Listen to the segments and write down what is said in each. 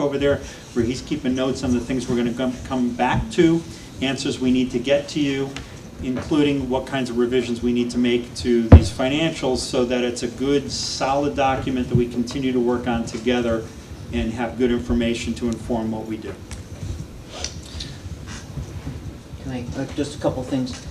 over there where he's keeping notes on the things we're going to come back to, answers we need to get to you, including what kinds of revisions we need to make to these financials so that it's a good, solid document that we continue to work on together and have good information to inform what we do. Can I, uh, just a couple things.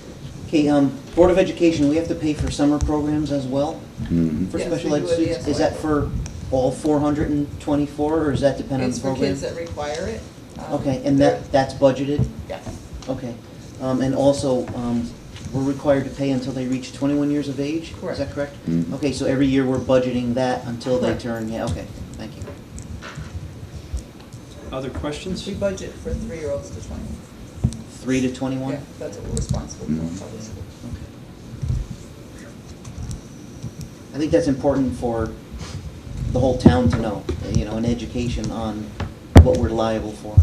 Okay, um, Board of Education, we have to pay for summer programs as well for Yes, special we ed do it, students? yes. Is that for all four hundred and twenty-four, or is that dependent on It's the for program? kids that require it. um, Okay, and that, that's budgeted? Yes, Okay. Um, and also, um, we're required to pay until they reach twenty-one years of age? Is that Correct. correct? Mhm. Okay, so every year we're budgeting that until they Correct. turn, yeah, okay, thank you. Other questions? we budget for three-year-olds to twenty. Three to twenty-one? Yeah, that's what we're responsible for in Mhm. public school. Okay. I think that's important for the whole town to know, you know, an education on what we're liable for.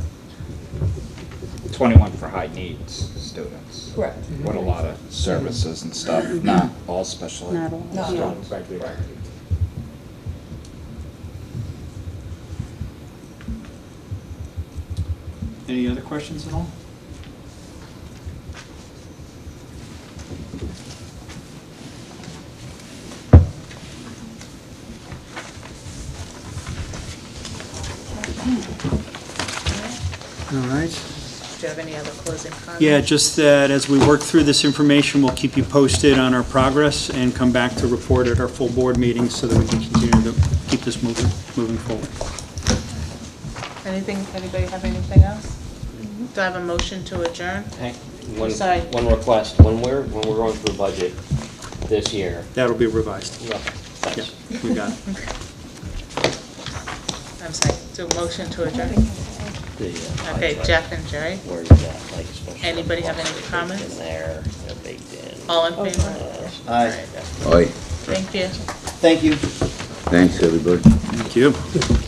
21 for high needs students. Correct. What a lot of services and stuff, not all special ed. Mm-hmm. Not all, No. yeah. Students, right, right. Any other questions at all? All right. Do you have any other closing comments? Yeah, just that as we work through this information, we'll keep you posted on our progress and come back to report at our full board meeting so that we can continue to keep this moving, moving forward. Anything, anybody have anything else? Do I have a motion to adjourn? Hey, One, Sorry. one request, when we're, when we're going through budget this year, That'll be revised. yeah, Yeah, thanks. we got it. I'm sorry, do a motion to adjourn? The, uh, pie Okay, chart, Jeff and Jerry, Where's that, like, special? ed Anybody have any costs baked comments? In there, they're baked in. all in favor? Uh, Aye. Aye, Thank you. Thank you. thanks, everybody. Thank you.